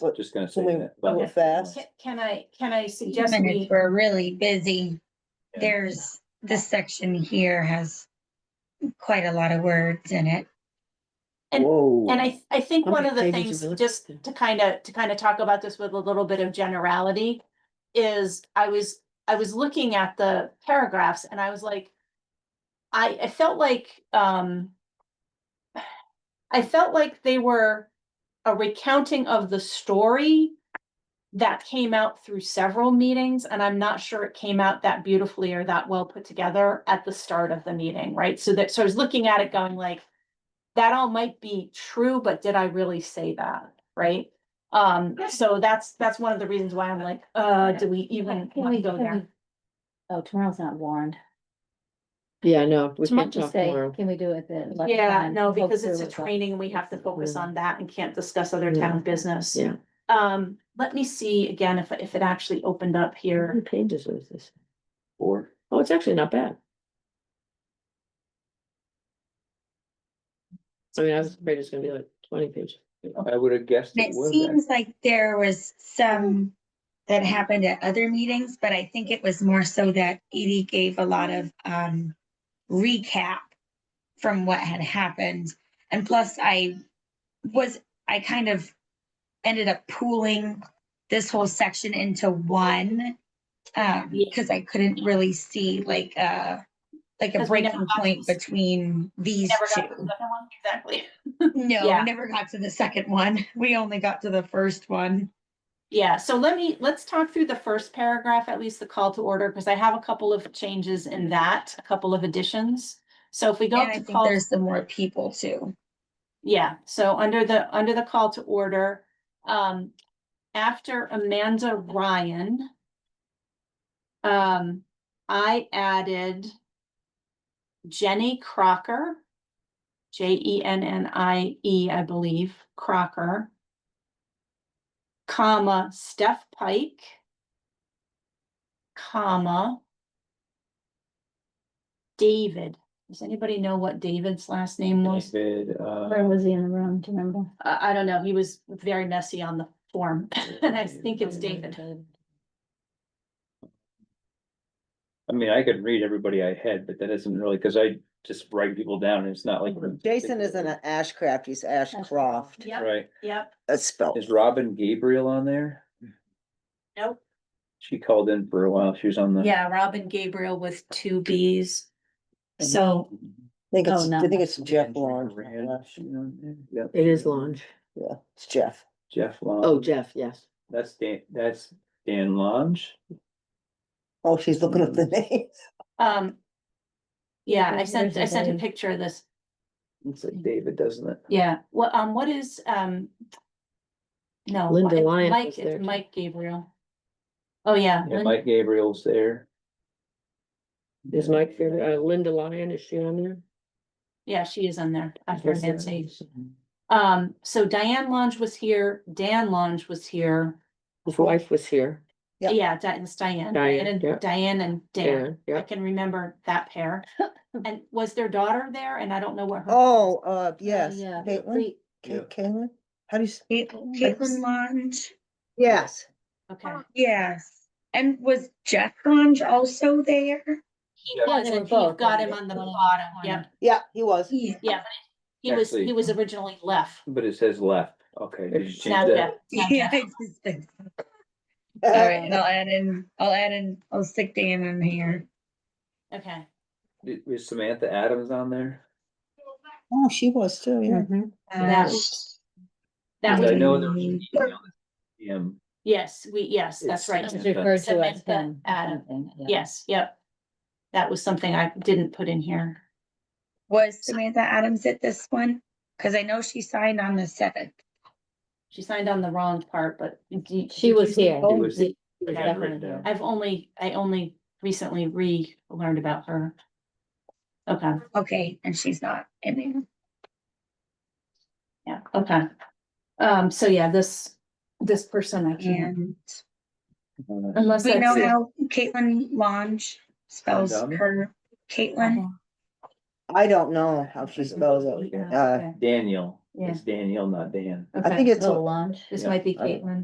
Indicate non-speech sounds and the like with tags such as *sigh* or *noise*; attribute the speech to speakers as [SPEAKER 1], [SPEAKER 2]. [SPEAKER 1] but
[SPEAKER 2] Just gonna say
[SPEAKER 1] can we
[SPEAKER 2] that. but-
[SPEAKER 1] move fast?
[SPEAKER 3] Ca- Can I, can I suggest we,
[SPEAKER 4] Minutes were really busy.
[SPEAKER 2] Yeah.
[SPEAKER 4] There's, this section here has quite a lot of words in it.
[SPEAKER 3] And-
[SPEAKER 1] Whoa.
[SPEAKER 3] and I, I think
[SPEAKER 1] How
[SPEAKER 3] one
[SPEAKER 1] many
[SPEAKER 3] of the
[SPEAKER 1] pages
[SPEAKER 3] things,
[SPEAKER 1] you looked
[SPEAKER 3] just
[SPEAKER 1] at?
[SPEAKER 3] to kind of, to kind of talk about this with a little bit of generality is I was, I was looking at the paragraphs and I was like, I, I felt like, um, *sighs* I felt like they were a recounting of the story that came out through several meetings, and I'm not sure it came out that beautifully or that well put together at the start of the meeting, right? So that, so I was looking at it going like, that all might be true, but did I really say that, right? Um, so that's, that's one of the reasons why I'm like, uh, do we even
[SPEAKER 5] Can
[SPEAKER 3] want
[SPEAKER 5] we
[SPEAKER 3] to go
[SPEAKER 5] can
[SPEAKER 3] there?
[SPEAKER 5] we- Oh, tomorrow's not warned.
[SPEAKER 1] Yeah, no, we
[SPEAKER 5] It's much
[SPEAKER 1] can't
[SPEAKER 5] to
[SPEAKER 1] talk
[SPEAKER 5] say,
[SPEAKER 1] tomorrow.
[SPEAKER 5] can we do it then? let
[SPEAKER 3] Yeah,
[SPEAKER 5] time
[SPEAKER 3] no,
[SPEAKER 5] go
[SPEAKER 3] because it's a
[SPEAKER 5] through it, but-
[SPEAKER 3] training, we have to focus
[SPEAKER 1] Yeah.
[SPEAKER 3] on that and can't discuss other
[SPEAKER 1] Yeah.
[SPEAKER 3] town business.
[SPEAKER 1] Yeah.
[SPEAKER 3] Um, let me see again if, if it actually opened up
[SPEAKER 1] How
[SPEAKER 5] Mm-hmm.
[SPEAKER 1] many
[SPEAKER 3] here.
[SPEAKER 1] pages was this?
[SPEAKER 2] Or,
[SPEAKER 1] Oh, it's actually not bad. I mean, I was afraid it's gonna be like twenty pages.
[SPEAKER 3] Oh.
[SPEAKER 2] I would have guessed
[SPEAKER 4] And
[SPEAKER 2] it
[SPEAKER 4] it
[SPEAKER 2] would
[SPEAKER 4] seems like there was some that happened at other meetings, but I think it was more so that Edie gave a lot of um recap from what had happened. And plus I was, I kind of ended up pooling this whole section into one. Um,
[SPEAKER 3] Yeah.
[SPEAKER 4] because I couldn't really see like uh like a
[SPEAKER 3] Because we never
[SPEAKER 4] breaking
[SPEAKER 3] got to
[SPEAKER 4] point
[SPEAKER 3] this-
[SPEAKER 4] between these
[SPEAKER 3] Never
[SPEAKER 4] two.
[SPEAKER 3] got to the second one, exactly.
[SPEAKER 4] No,
[SPEAKER 3] Yeah.
[SPEAKER 4] we never got to the second one. We only got to the first one.
[SPEAKER 3] Yeah, so let me, let's talk through the first paragraph, at least the call to order, because I have a couple of changes in that, a couple of additions. So if we go
[SPEAKER 4] And I
[SPEAKER 3] to
[SPEAKER 4] think
[SPEAKER 3] call,
[SPEAKER 4] there's some more people too.
[SPEAKER 3] yeah, so under the, under the call to order, um, after Amanda Ryan, um, I added Jenny Crocker, J E N N I E, I believe, Crocker, comma, Steph Pike, comma, David. Does anybody know what David's last name
[SPEAKER 2] have.
[SPEAKER 3] was?
[SPEAKER 2] David, uh,
[SPEAKER 5] Where
[SPEAKER 3] *laughs*
[SPEAKER 5] was he in the room? Do you remember?
[SPEAKER 3] I, I don't know. He was very messy on the form, and I think it's David.
[SPEAKER 2] I mean, I could read everybody I had, but that isn't really, cause I just write people down and it's not like.
[SPEAKER 1] Mm-hmm.
[SPEAKER 6] Jason isn't an Ashcraft, he's Ashcroft.
[SPEAKER 3] Yep,
[SPEAKER 2] Right,
[SPEAKER 3] yep,
[SPEAKER 6] That's spelled.
[SPEAKER 2] is Robin Gabriel on there?
[SPEAKER 3] nope.
[SPEAKER 2] She called in for a while, she was on the.
[SPEAKER 3] Yeah, Robin Gabriel with two Bs. So,
[SPEAKER 6] I think it's,
[SPEAKER 5] Oh, no.
[SPEAKER 6] I think it's Jeff Lawrence.
[SPEAKER 2] It
[SPEAKER 1] It is Lange.
[SPEAKER 6] Yeah, it's Jeff.
[SPEAKER 2] Jeff
[SPEAKER 1] Oh,
[SPEAKER 2] Long,
[SPEAKER 1] Jeff, yes.
[SPEAKER 2] that's Dan, that's Dan Longe.
[SPEAKER 6] Oh, she's looking up the
[SPEAKER 2] Hmm.
[SPEAKER 5] *laughs*
[SPEAKER 6] name.
[SPEAKER 3] um. Yeah, I
[SPEAKER 5] There's-
[SPEAKER 3] sent, I
[SPEAKER 5] there's a
[SPEAKER 3] sent a
[SPEAKER 5] Dave.
[SPEAKER 3] picture of this.
[SPEAKER 2] It's like David, doesn't it?
[SPEAKER 3] Yeah, what, um, what is, um. No.
[SPEAKER 1] Linda
[SPEAKER 3] it's
[SPEAKER 1] Lyons
[SPEAKER 3] Mike,
[SPEAKER 1] was there,
[SPEAKER 3] it's
[SPEAKER 1] too.
[SPEAKER 3] Mike Gabriel. Oh, yeah.
[SPEAKER 2] Yeah,
[SPEAKER 3] Lin-
[SPEAKER 2] Mike Gabriel's there.
[SPEAKER 1] Is Mike here? Uh, Linda Lyon, is she on there?
[SPEAKER 3] Yeah, she is on there. After
[SPEAKER 1] Yes,
[SPEAKER 3] Nancy. Um, so Diane Lange was here, Dan Lange was here.
[SPEAKER 1] His wife was here.
[SPEAKER 6] Yep.
[SPEAKER 3] Yeah, Di- it's Diane,
[SPEAKER 1] Diane,
[SPEAKER 3] Diane
[SPEAKER 1] yeah.
[SPEAKER 3] and Diane and Dan.
[SPEAKER 1] Darren,
[SPEAKER 3] I
[SPEAKER 1] yeah.
[SPEAKER 3] can remember that
[SPEAKER 5] *laughs*
[SPEAKER 3] pair. And was their daughter there? And I don't know what her.
[SPEAKER 6] Oh, uh, yes,
[SPEAKER 5] Yeah.
[SPEAKER 6] Caitlin,
[SPEAKER 5] Free-
[SPEAKER 2] Yeah.
[SPEAKER 6] Ca- Caitlin, how do you? s-
[SPEAKER 4] Cait- Caitlin Lange,
[SPEAKER 6] Yes,
[SPEAKER 3] Okay.
[SPEAKER 4] yes. And was Jeff Lange also there?
[SPEAKER 3] He
[SPEAKER 2] Yeah.
[SPEAKER 3] was,
[SPEAKER 5] they were
[SPEAKER 3] and you've
[SPEAKER 5] both,
[SPEAKER 3] got him
[SPEAKER 5] and they
[SPEAKER 3] on the
[SPEAKER 5] were both
[SPEAKER 3] bottom,
[SPEAKER 5] on
[SPEAKER 3] yeah.
[SPEAKER 6] yeah, he
[SPEAKER 5] *laughs*
[SPEAKER 6] was.
[SPEAKER 4] Yeah.
[SPEAKER 3] He was, he
[SPEAKER 2] Actually-
[SPEAKER 3] was originally left.
[SPEAKER 2] But it says left, okay. did you
[SPEAKER 1] It's
[SPEAKER 2] change
[SPEAKER 3] Now
[SPEAKER 2] that?
[SPEAKER 3] Jeff- now
[SPEAKER 4] *laughs* Yeah.
[SPEAKER 3] Jeff.
[SPEAKER 4] I just think- All right, I'll add in, I'll add in, I'll stick Dan in here.
[SPEAKER 3] Okay,
[SPEAKER 2] Did- Was Samantha Adams on there?
[SPEAKER 6] *laughs* Oh, she was too, yeah.
[SPEAKER 1] Mhm.
[SPEAKER 3] That
[SPEAKER 4] Uh,
[SPEAKER 3] was- that
[SPEAKER 2] I
[SPEAKER 3] was,
[SPEAKER 2] know there was an email that came
[SPEAKER 3] yes, we, yes,
[SPEAKER 2] It's-
[SPEAKER 3] that's right.
[SPEAKER 5] It was
[SPEAKER 2] Yeah.
[SPEAKER 5] referred to as
[SPEAKER 3] Samantha
[SPEAKER 5] him. or
[SPEAKER 3] Adam.
[SPEAKER 5] something, yeah.
[SPEAKER 3] Yes, yep. That was something I didn't put in here.
[SPEAKER 4] Um, Was Samantha Adams at this one? Cause I know she signed on the seventh.
[SPEAKER 3] She signed on the wrong part, but d-
[SPEAKER 5] She
[SPEAKER 3] did
[SPEAKER 5] was
[SPEAKER 3] you see-
[SPEAKER 5] here.
[SPEAKER 2] She was-
[SPEAKER 5] She-
[SPEAKER 2] I
[SPEAKER 5] she
[SPEAKER 2] got it
[SPEAKER 5] definitely
[SPEAKER 2] written down.
[SPEAKER 5] here.
[SPEAKER 3] I've only, I only recently relearned about her. Okay,
[SPEAKER 4] Okay, and she's not in there.
[SPEAKER 3] yeah, okay. Um, so yeah, this, this person I can't,
[SPEAKER 4] And
[SPEAKER 2] Uh,
[SPEAKER 3] unless.
[SPEAKER 4] we know
[SPEAKER 3] that's-
[SPEAKER 4] how Caitlin Lange spells
[SPEAKER 2] Dumb.
[SPEAKER 4] her Caitlin.
[SPEAKER 5] Mm-hmm.
[SPEAKER 6] I don't know how she spells it.
[SPEAKER 3] Yeah,
[SPEAKER 6] Uh,
[SPEAKER 3] okay.
[SPEAKER 2] Daniel, Yeah.
[SPEAKER 5] It's Danielle, not Dan.
[SPEAKER 7] I think it's a
[SPEAKER 2] Little lunch.
[SPEAKER 3] This
[SPEAKER 5] Yeah,
[SPEAKER 3] might be
[SPEAKER 5] I-
[SPEAKER 3] Caitlin.